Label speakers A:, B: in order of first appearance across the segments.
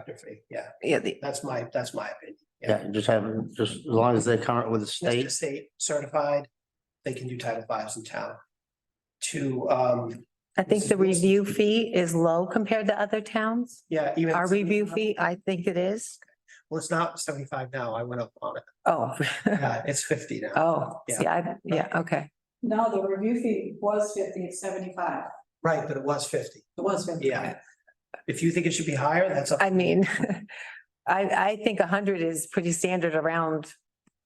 A: conductor fee, yeah,
B: Yeah, the,
A: that's my, that's my opinion.
C: Yeah, just have, just as long as they come up with the
A: Once the
C: state,
A: state certified, they can do Title Fives in town. To, um,
B: I think the review fee is low compared to other towns.
A: yeah, even.
B: Our review fee, I think it is.
A: Well, it's not seventy-five now, I went up on it,
B: Oh,
A: yeah, it's fifty now.
B: oh,
A: Yeah.
B: yeah, I- yeah, okay.
D: No, the review fee was fifty, it's seventy-five.
A: Right, but it was fifty.
D: It was fifty.
A: Yeah. If you think it should be higher, that's up.
B: I mean, I, I think a hundred is pretty standard around,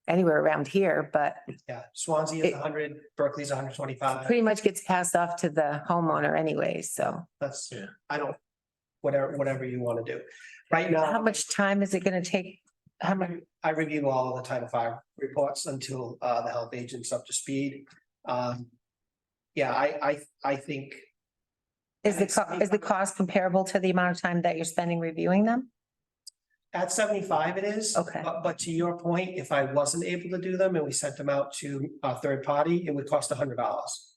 B: anywhere around here, but
A: Yeah, Swansea is
B: It-
A: hundred, Berkeley's hundred twenty-five,
B: pretty much gets passed off to the homeowner anyways, so.
A: that's,
C: Yeah.
A: I don't, whatever, whatever you want to do. Right now.
B: How much time is it gonna take? How much,
A: I review all of the Title V reports until uh the health agent's up to speed. Um. Yeah, I I I think,
B: is the, co- is the cost comparable to the amount of time that you're spending reviewing them?
A: at seventy-five it is.
B: Okay.
A: But but to your point, if I wasn't able to do them and we sent them out to a third party, it would cost hundred dollars.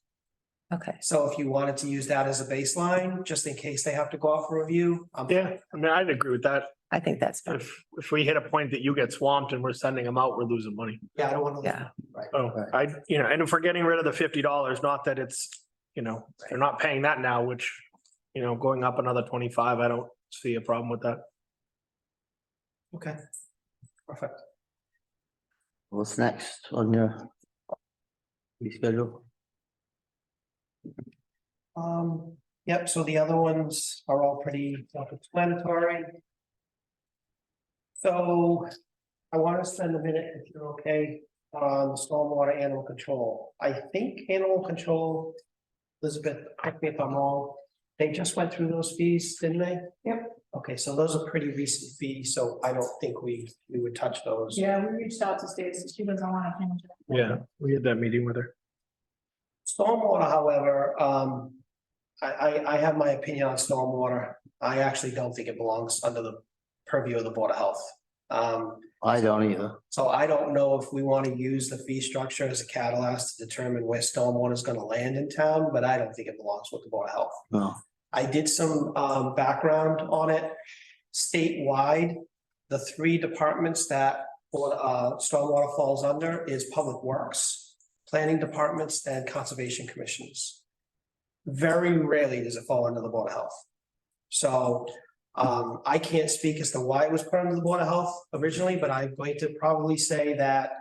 B: Okay,
A: So if you wanted to use that as a baseline, just in case they have to go off for review. I'm-
E: Yeah, I mean, I'd agree with that.
B: I think that's, fair.
E: If, if we hit a point that you get swamped and we're sending them out, we're losing money.
A: Yeah, I don't want to.
B: yeah.
E: Oh, I, you know, and if we're getting rid of the fifty dollars, not that it's, you know, they're not paying that now, which, you know, going up another twenty-five, I don't see a problem with that.
A: Okay. Perfect.
C: what's next on your fee schedule?
A: Um, yep, so the other ones are all pretty self-explanatory. So I want to spend a minute, if you're okay, on stormwater animal control. I think animal control, Elizabeth, correct me if I'm wrong, they just went through those fees, didn't they?
D: Yep.
A: Okay, so those are pretty recent fees, so I don't think we, we would touch those.
D: Yeah, we reached out to Stacy, she doesn't want to change it.
E: Yeah, we had that meeting with her.
A: Stormwater, however, um, I, I, I have my opinion on stormwater. I actually don't think it belongs under the purview of the Board of Health. Um,
C: I don't either.
A: so I don't know if we want to use the fee structure as a catalyst to determine where stormwater is going to land in town, but I don't think it belongs with the Board of Health.
C: No,
A: I did some um background on it. Statewide, the three departments that uh stormwater falls under is Public Works, Planning Departments and Conservation Commissions. Very rarely does it fall under the Board of Health. So um I can't speak as to why it was put under the Board of Health originally, but I'm going to probably say that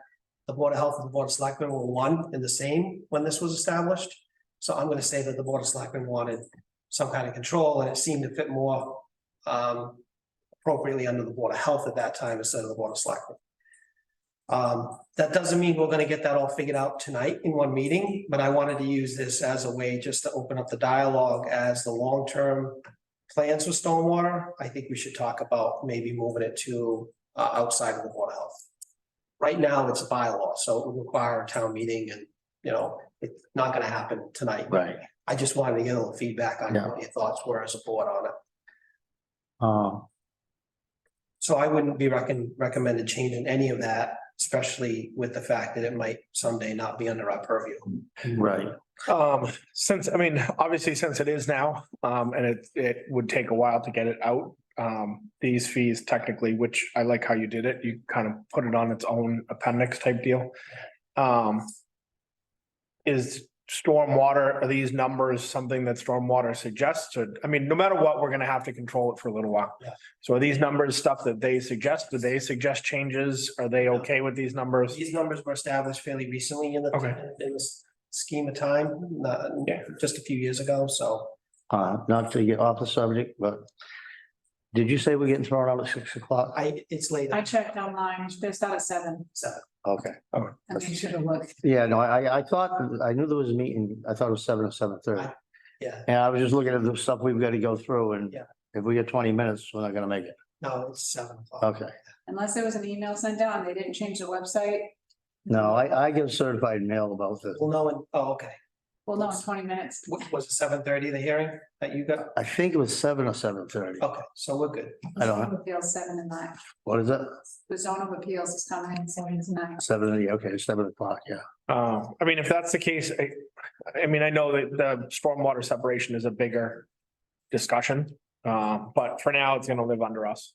A: the Board of Health and the Board of Selectmen were one and the same when this was established. So I'm gonna say that the Board of Selectmen wanted some kind of control, and it seemed to fit more um appropriately under the Board of Health at that time instead of the Board of Selectmen. Um, that doesn't mean we're gonna get that all figured out tonight in one meeting, but I wanted to use this as a way just to open up the dialogue as the long-term plans with stormwater. I think we should talk about maybe moving it to uh outside of the Board of Health. Right now, it's a bylaw, so it would require a town meeting and, you know, it's not gonna happen tonight.
C: right.
A: I just wanted to get a little feedback on
C: Yeah.
A: what your thoughts were as a board on it.
C: Um,
A: So I wouldn't be recon- recommended changing any of that, especially with the fact that it might someday not be under our purview.
C: right.
E: Um, since, I mean, obviously, since it is now, um, and it, it would take a while to get it out. Um, these fees technically, which I like how you did it, you kind of put it on its own appendix type deal. Um. Is stormwater, are these numbers something that stormwater suggests? Or, I mean, no matter what, we're gonna have to control it for a little while.
A: Yeah.
E: So are these numbers stuff that they suggest? Do they suggest changes? Are they okay with these numbers?
A: These numbers were established fairly recently in the,
E: Okay.
A: in the scheme of time, not-
E: Yeah.
A: just a few years ago, so.
C: Uh, not to get off the subject, but did you say we're getting thrown out at six o'clock?
A: I, it's late.
D: I checked online, they start at seven,
A: So,
C: Okay.
D: I mean, should have looked.
C: Yeah, no, I, I thought, I knew there was a meeting. I thought it was seven or seven thirty.
A: Yeah,
C: And I was just looking at the stuff we've got to go through and
A: Yeah.
C: if we get twenty minutes, we're not gonna make it.
A: no, it's seven o'clock.
C: Okay.
D: Unless there was an email sent out and they didn't change the website,
C: No, I, I get certified mail about this.
A: Well, no, and, oh, okay.
D: well, no, in twenty minutes.
A: Wa- Was it seven thirty, the hearing that you got?
C: I think it was seven or seven thirty.
A: Okay, so we're good.
C: I don't know.
D: Appeals seven and nine,
C: What is it?
D: the zone of appeals is coming in seven to nine.
C: Seven, thirty, okay, seven o'clock, yeah.
E: Um, I mean, if that's the case, I, I mean, I know that the stormwater separation is a bigger discussion. Um, but for now, it's gonna live under us.